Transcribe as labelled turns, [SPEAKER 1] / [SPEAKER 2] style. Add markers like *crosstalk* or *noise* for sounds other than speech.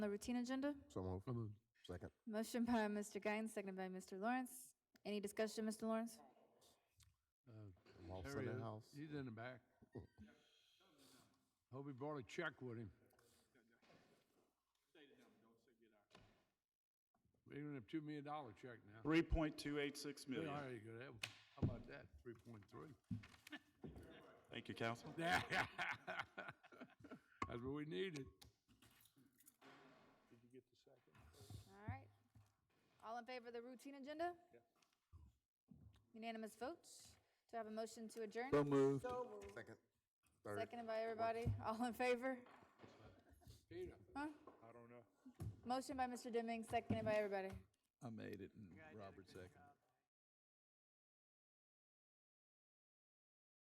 [SPEAKER 1] routine agenda.
[SPEAKER 2] So moved. Second.
[SPEAKER 1] Motion by Mr. Gaines, seconded by Mr. Lawrence. Any discussion, Mr. Lawrence?
[SPEAKER 2] I'm all
[SPEAKER 3] There
[SPEAKER 2] set
[SPEAKER 3] he
[SPEAKER 2] in
[SPEAKER 3] is.
[SPEAKER 2] the house.
[SPEAKER 3] He's in the back. Hope he brought a check with him. We're gonna have two million dollar check now.
[SPEAKER 4] 3.286 million.
[SPEAKER 3] There you go. That- How about that? Three point three. *laughs*
[SPEAKER 4] Thank you, Council.
[SPEAKER 3] That's what we needed.
[SPEAKER 1] All right. All in favor of the routine agenda? Unanimous votes. Do I have a motion to adjourn?
[SPEAKER 2] So moved. Second. Third.
[SPEAKER 1] Seconded by everybody. All in favor?
[SPEAKER 3] Peter.
[SPEAKER 1] Motion by Mr. Dimming, seconded by everybody.
[SPEAKER 5] I made it and Robert seconded.